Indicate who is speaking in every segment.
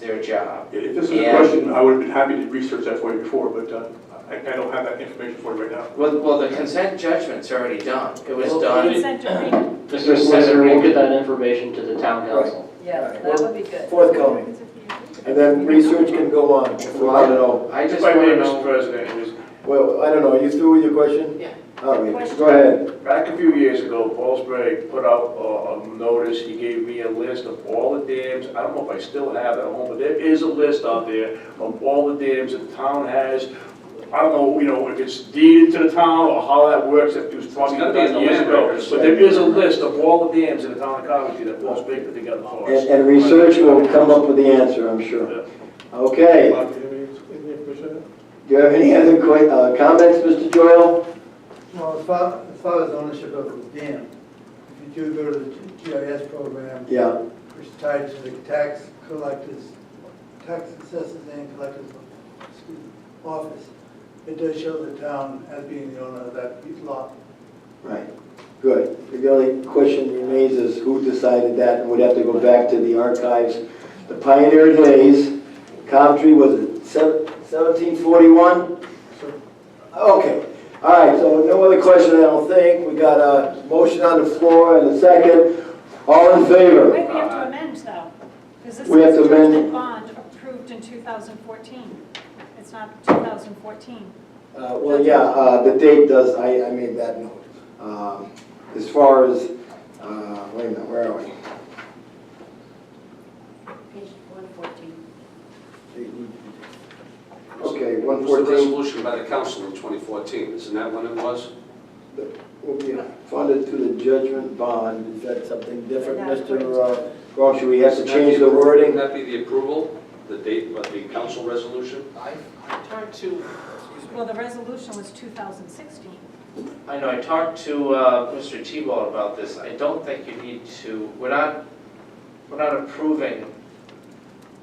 Speaker 1: their job.
Speaker 2: If this is a
Speaker 1: Yeah.
Speaker 2: question, I would have been happy to research that for you before, but uh, I I don't have that information for you right now.
Speaker 1: Well, well, the consent judgment's already done. It was
Speaker 3: Well,
Speaker 1: done.
Speaker 4: Consent decree,
Speaker 3: Mr.
Speaker 1: Mr.
Speaker 3: Solicitor, we'll
Speaker 1: Reagan.
Speaker 3: get that information to the town council.
Speaker 4: yeah, that would be good.
Speaker 5: forthcoming. And then research can go on, if we want to know.
Speaker 1: I just
Speaker 2: If I may,
Speaker 1: want
Speaker 2: Mr.
Speaker 1: to know.
Speaker 6: President, it was
Speaker 5: Well, I don't know, you through with your question?
Speaker 1: Ah, Yeah.
Speaker 5: All right,
Speaker 4: Question.
Speaker 5: go ahead.
Speaker 6: back a few years ago, Paul Spray put out uh, a notice, he gave me a list of all the dams, I don't know if I still have it at home, but there is a list out there of all the dams that the town has. I don't know, you know, if it's deeded to the town or how that works, if it was probably
Speaker 2: It's gotta be in
Speaker 6: done
Speaker 2: the
Speaker 6: years
Speaker 2: land
Speaker 6: ago.
Speaker 2: records.
Speaker 6: But there is a list of all the dams in the town of Coventry that Paul Spray put together for us.
Speaker 5: And, and research will come up with the answer, I'm sure. Okay,
Speaker 2: Bob, do you have any- any information?
Speaker 5: do you have any other que, uh, comments, Mr. Doyle?
Speaker 7: Well, as far, as far as ownership of the dam, if you do go to the G- GIS program,
Speaker 5: Yeah,
Speaker 7: which is tied to the tax collectors, tax assessors and collectors, excuse me, office, it does show the town as being the owner of that piece lot.
Speaker 5: right, good. The only question remains is who decided that, and would have to go back to the archives. The pioneer days, Coventry was it seventeen forty-one?
Speaker 7: So
Speaker 5: Okay, all right, so no other question, I don't think. We got a motion on the floor and a second. All in favor?
Speaker 4: Wait, we have to amend though, because this
Speaker 5: We have to
Speaker 4: is
Speaker 5: amend-
Speaker 4: judgment bond approved in 2014. It's not 2014.
Speaker 5: Uh, Well, yeah, uh, the date does, I, I made that note. Um, As far as, uh, wait a minute, where are we?
Speaker 4: Page 114.
Speaker 5: Okay,
Speaker 8: It was the
Speaker 5: 114
Speaker 8: resolution by the council in 2014, isn't that when it was?
Speaker 5: will be funded through the judgment bond. Is that something different, Mr. Grosh? Should we have to change the
Speaker 8: Wouldn't
Speaker 5: wording?
Speaker 8: that be the approval, the date of the council resolution?
Speaker 1: I I talked to,
Speaker 4: Well, the resolution was 2016.
Speaker 1: I know, I talked to uh, Mr. Tebow about this. I don't think you need to, we're not, we're not approving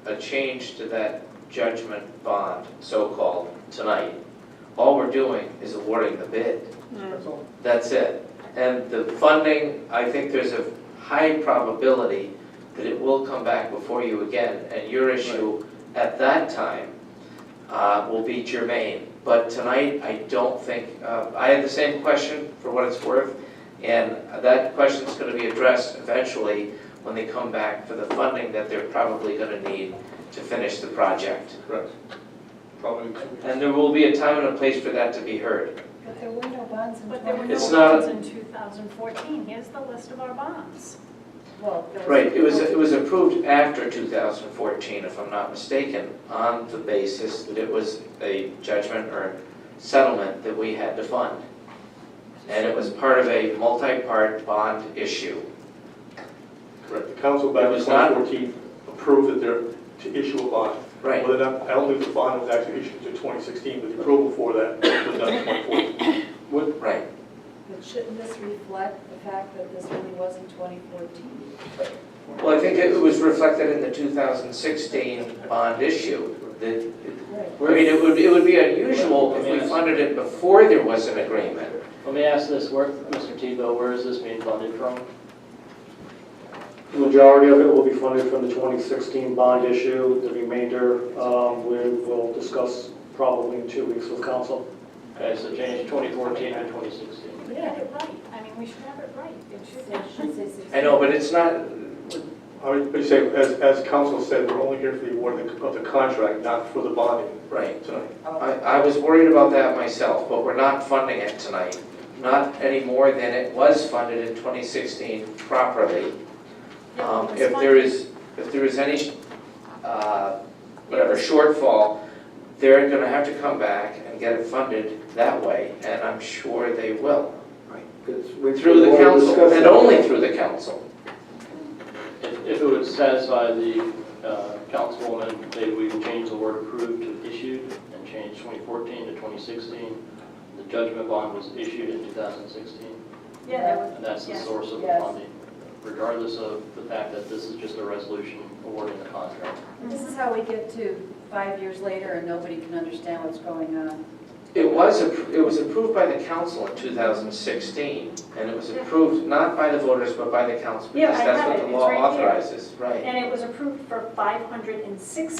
Speaker 1: a change to that judgment bond, so-called, tonight. All we're doing is awarding the bid.
Speaker 2: That's all.
Speaker 1: That's it. And the funding, I think there's a high probability that it will come back before you again, and your issue at that time uh, will be germane. But tonight, I don't think, uh, I had the same question, for what it's worth, and that question's going to be addressed eventually when they come back for the funding that they're probably going to need to finish the project.
Speaker 2: Correct. Probably. two weeks.
Speaker 1: And there will be a time and a place for that to be heard.
Speaker 3: But there were no bonds
Speaker 4: But there were no
Speaker 1: It's not-
Speaker 4: bonds in 2014. Here's the list of our bonds.
Speaker 3: Well, there
Speaker 1: Right, it was, it was approved after 2014, if I'm not mistaken, on the basis that it was a judgment or settlement that we had to fund. And it was part of a multi-part bond issue.
Speaker 2: Correct. The council back
Speaker 1: It
Speaker 2: in
Speaker 1: was not-
Speaker 2: 2014 approved that they're to issue a bond.
Speaker 1: Right,
Speaker 2: Whether or not, I don't think the bond was actually issued until 2016, but the approval for that was done in 2014.
Speaker 1: right.
Speaker 3: But shouldn't this reflect the fact that this really wasn't 2014?
Speaker 1: Well, I think it was reflected in the 2016 bond issue. The-
Speaker 3: Right.
Speaker 1: I mean, it would, it would be unusual if we funded it before there was an agreement.
Speaker 3: Let me ask this, where, Mr. Tebow, where is this being funded from?
Speaker 9: The majority of it will be funded from the 2016 bond issue. The remainder, um, we will discuss probably in two weeks with council.
Speaker 3: Okay, so change 2014 to 2016.
Speaker 4: We had it right. I mean, we should have it right. It should
Speaker 1: I know, but it's not,
Speaker 2: I mean, but you say, as, as council said, we're only here for the award of the- of the contract, not for the bonding
Speaker 1: right.
Speaker 2: tonight.
Speaker 1: I, I was worried about that myself, but we're not funding it tonight. Not any more than it was funded in 2016 properly.
Speaker 4: Yeah,
Speaker 1: Um,
Speaker 4: it was
Speaker 1: If
Speaker 4: fun.
Speaker 1: there is, if there is any, uh, whatever shortfall, they're going to have to come back and get it funded that way, and I'm sure they will. Through the council, and only through the council.
Speaker 3: If, if it would satisfy the uh, councilwoman, maybe we can change the word approved to issued and change 2014 to 2016. The judgment bond was issued in 2016,
Speaker 4: Yeah, there was,
Speaker 3: and that's the
Speaker 4: Yes.
Speaker 3: source of the
Speaker 10: Yes.
Speaker 3: funding, regardless of the fact that this is just a resolution awarding the contract.
Speaker 10: This is how we get to five years later and nobody can understand what's going on.
Speaker 1: It was, appro- it was approved by the council in 2016, and it was approved not by the voters, but by the council,
Speaker 4: Yeah,
Speaker 1: because
Speaker 4: I
Speaker 1: that's
Speaker 4: have
Speaker 1: what
Speaker 4: it.
Speaker 1: the
Speaker 4: It's
Speaker 1: law
Speaker 4: right here.
Speaker 1: authorizes, right?
Speaker 4: and it was approved for 506